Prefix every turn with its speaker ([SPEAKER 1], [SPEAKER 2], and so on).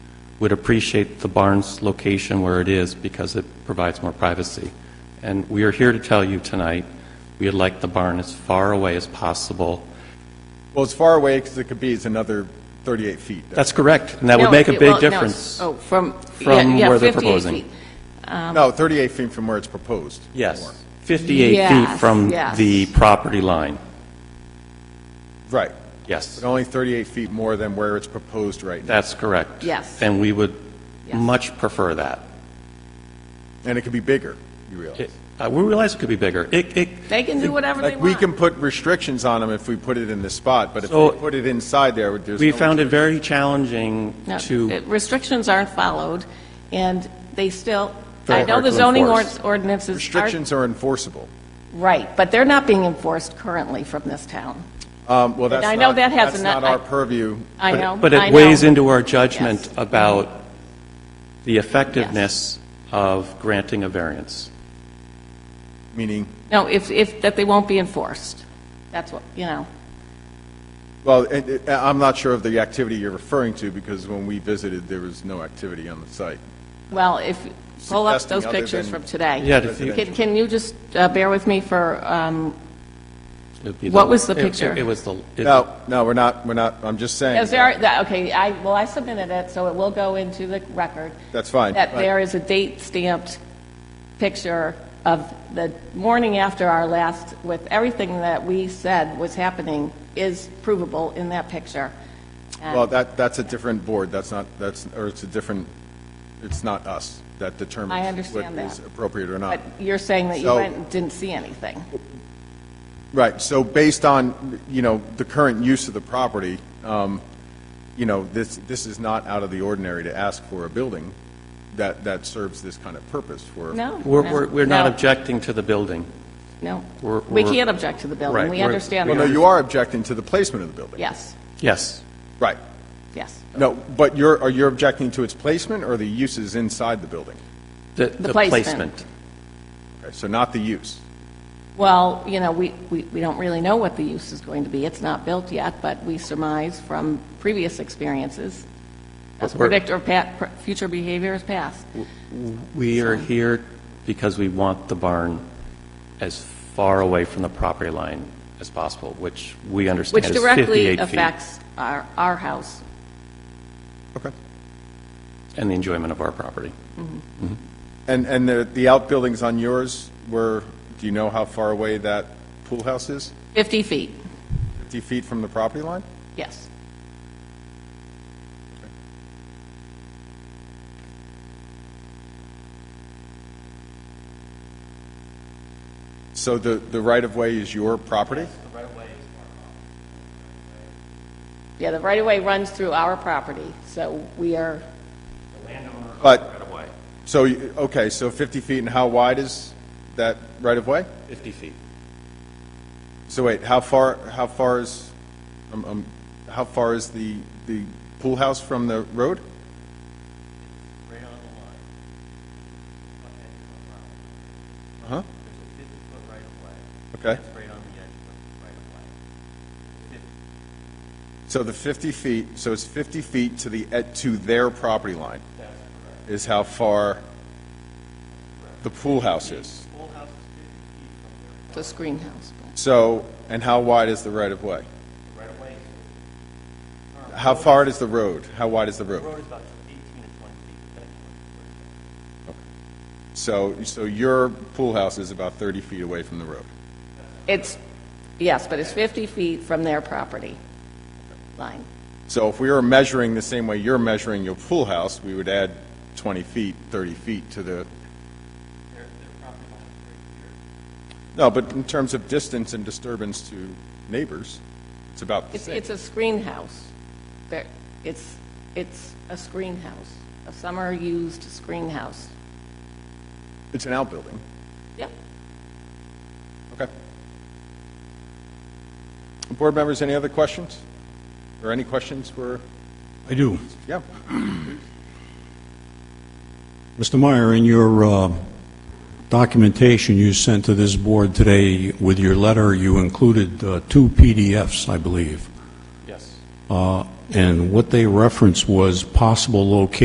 [SPEAKER 1] would appreciate the barn's location where it is because it provides more privacy. And we are here to tell you tonight, we'd like the barn as far away as possible.
[SPEAKER 2] Well, as far away as it could be is another 38 feet.
[SPEAKER 1] That's correct, and that would
[SPEAKER 3] No,
[SPEAKER 1] make a
[SPEAKER 3] it-
[SPEAKER 1] big
[SPEAKER 3] well, no,
[SPEAKER 1] difference.
[SPEAKER 3] Oh, from, yeah,
[SPEAKER 1] from
[SPEAKER 3] yeah,
[SPEAKER 1] where they're
[SPEAKER 3] 58
[SPEAKER 1] proposing.
[SPEAKER 3] feet.
[SPEAKER 2] No, 38 feet from where it's proposed. More.
[SPEAKER 1] Yes, 58 feet
[SPEAKER 3] Yes,
[SPEAKER 1] from
[SPEAKER 3] yes.
[SPEAKER 1] the property line,
[SPEAKER 2] Right.
[SPEAKER 1] yes.
[SPEAKER 2] But only 38 feet more than where it's proposed right now.
[SPEAKER 1] That's correct.
[SPEAKER 3] Yes.
[SPEAKER 1] And we would
[SPEAKER 3] Yes.
[SPEAKER 1] much prefer that.
[SPEAKER 2] And it could be bigger, you realize.
[SPEAKER 1] It- uh, We realize it could be bigger. It, it,
[SPEAKER 3] They can do whatever they
[SPEAKER 2] Like, we
[SPEAKER 3] want.
[SPEAKER 2] can put restrictions on them if we put it in this spot, but if
[SPEAKER 1] So-
[SPEAKER 2] we put it inside there, there's no...
[SPEAKER 1] we found it very challenging
[SPEAKER 3] No,
[SPEAKER 1] to,
[SPEAKER 3] it- Restrictions aren't followed, and they still,
[SPEAKER 1] Very
[SPEAKER 3] I know
[SPEAKER 1] hard
[SPEAKER 3] the
[SPEAKER 1] to
[SPEAKER 3] zoning
[SPEAKER 1] enforce.
[SPEAKER 3] ord- ordinances are,
[SPEAKER 2] Restrictions are enforceable.
[SPEAKER 3] right, but they're not being enforced currently from this town.
[SPEAKER 2] Um, Well, that's
[SPEAKER 3] I know
[SPEAKER 2] not,
[SPEAKER 3] that has
[SPEAKER 2] that's
[SPEAKER 3] a nut-
[SPEAKER 2] not our
[SPEAKER 3] I-
[SPEAKER 2] purview.
[SPEAKER 3] I know,
[SPEAKER 1] but
[SPEAKER 3] I
[SPEAKER 1] it
[SPEAKER 3] know.
[SPEAKER 1] weighs into our judgment
[SPEAKER 3] Yes.
[SPEAKER 1] about the effectiveness of granting a variance.
[SPEAKER 2] Meaning,
[SPEAKER 3] No, if, if, that they won't be enforced. That's what, you know,
[SPEAKER 2] well, it- it- I'm not sure of the activity you're referring to, because when we visited, there was no activity on the site.
[SPEAKER 3] well, if, pull up
[SPEAKER 2] Suggesting
[SPEAKER 3] those
[SPEAKER 2] other
[SPEAKER 3] pictures
[SPEAKER 2] than
[SPEAKER 3] from today.
[SPEAKER 1] Yeah, if you-
[SPEAKER 3] Can, can you just uh, bear with me for, um,
[SPEAKER 1] It'd be
[SPEAKER 3] What was the
[SPEAKER 1] it- it-
[SPEAKER 3] picture?
[SPEAKER 1] It was the, it-
[SPEAKER 2] No, no, we're not, we're not, I'm just saying.
[SPEAKER 3] Is there, that- okay, I, well, I submitted it, so it will go into the record.
[SPEAKER 2] That's fine.
[SPEAKER 3] That
[SPEAKER 2] Right.
[SPEAKER 3] there is a date stamped picture of the morning after our last, with everything that we said was happening is provable in that picture. And-
[SPEAKER 2] Well, that, that's a different board, that's not, that's, or it's a different, it's not us that determines.
[SPEAKER 3] I understand
[SPEAKER 2] What is
[SPEAKER 3] that.
[SPEAKER 2] appropriate or
[SPEAKER 3] But
[SPEAKER 2] not.
[SPEAKER 3] you're saying that you
[SPEAKER 2] So-
[SPEAKER 3] went and didn't see anything.
[SPEAKER 2] Right, so based on, you know, the current use of the property, um, you know, this, this is not out of the ordinary to ask for a building that, that serves this kind of purpose for.
[SPEAKER 3] No?
[SPEAKER 1] we're,
[SPEAKER 3] no,
[SPEAKER 1] we're- we're not
[SPEAKER 3] no,
[SPEAKER 1] objecting to the building.
[SPEAKER 3] No.
[SPEAKER 1] we're-
[SPEAKER 3] We
[SPEAKER 1] we're-
[SPEAKER 3] can't object to the
[SPEAKER 1] Right,
[SPEAKER 3] building. We
[SPEAKER 1] we're-
[SPEAKER 3] understand
[SPEAKER 2] Well, no,
[SPEAKER 3] that.
[SPEAKER 2] you are objecting to the placement of the building.
[SPEAKER 3] Yes,
[SPEAKER 1] Yes,
[SPEAKER 2] Right.
[SPEAKER 3] yes.
[SPEAKER 2] No, but you're, are you objecting to its placement or the uses inside the building?
[SPEAKER 1] the
[SPEAKER 3] The
[SPEAKER 1] the
[SPEAKER 3] placement.
[SPEAKER 1] placement.
[SPEAKER 2] Okay, So not the use.
[SPEAKER 3] Well, you know, we, we we don't really know what the use is going to be. It's not built yet, but we surmise from previous experiences, as a
[SPEAKER 1] But we're-
[SPEAKER 3] predictor of pa- pr- future behavior is past.
[SPEAKER 1] We are here because we want the barn as far away from the property line as possible, which we understand
[SPEAKER 3] Which
[SPEAKER 1] is 58 feet.
[SPEAKER 3] directly affects our, our house.
[SPEAKER 2] Okay.
[SPEAKER 1] And the enjoyment of our property.
[SPEAKER 2] And, and the, the outbuildings on yours were, do you know how far away that pool house is?
[SPEAKER 3] 50 feet,
[SPEAKER 2] 50 feet from the property line?
[SPEAKER 3] yes.
[SPEAKER 2] So the, the right-of-way is your property?
[SPEAKER 3] Yeah, the right-of-way runs through our property, so we are,
[SPEAKER 2] But, so, you- okay, so 50 feet, and how wide is that right-of-way?
[SPEAKER 1] 50 feet.
[SPEAKER 2] So wait, how far, how far is, um, um, how far is the, the pool house from the road? Right on the line. Uh-huh. There's a 50-foot right-of-way. Uh-huh. Okay. right on the edge of the right-of-way. So the 50 feet, so it's 50 feet to the, ed- to their property line? Is how far the pool house is?
[SPEAKER 3] the screen house.
[SPEAKER 2] So, and how wide is the right-of-way? How far is the road? How wide is the road?
[SPEAKER 4] road is about 18 to 20 feet, depending on where you
[SPEAKER 2] So,
[SPEAKER 4] are.
[SPEAKER 2] so your pool house is about 30 feet away from the road?
[SPEAKER 3] It's, yes, but it's 50 feet from their property line.
[SPEAKER 2] So if we were measuring the same way you're measuring your pool house, we would add 20 feet, 30 feet to the... No, but in terms of distance and disturbance to neighbors, it's about the
[SPEAKER 3] It's,
[SPEAKER 2] same.
[SPEAKER 3] it's a screen house. There, it's, it's a screen house, a summer-used screen house.
[SPEAKER 2] It's an outbuilding.
[SPEAKER 3] Yep.
[SPEAKER 2] Okay. Board members, any other questions? Or any questions for,
[SPEAKER 5] I do.
[SPEAKER 2] yeah?
[SPEAKER 5] Mr. Meyer, in your uh, documentation you sent to this board today, with your letter, you included uh, two PDFs, I believe.
[SPEAKER 1] Yes.
[SPEAKER 5] Uh, And what they referenced was possible locations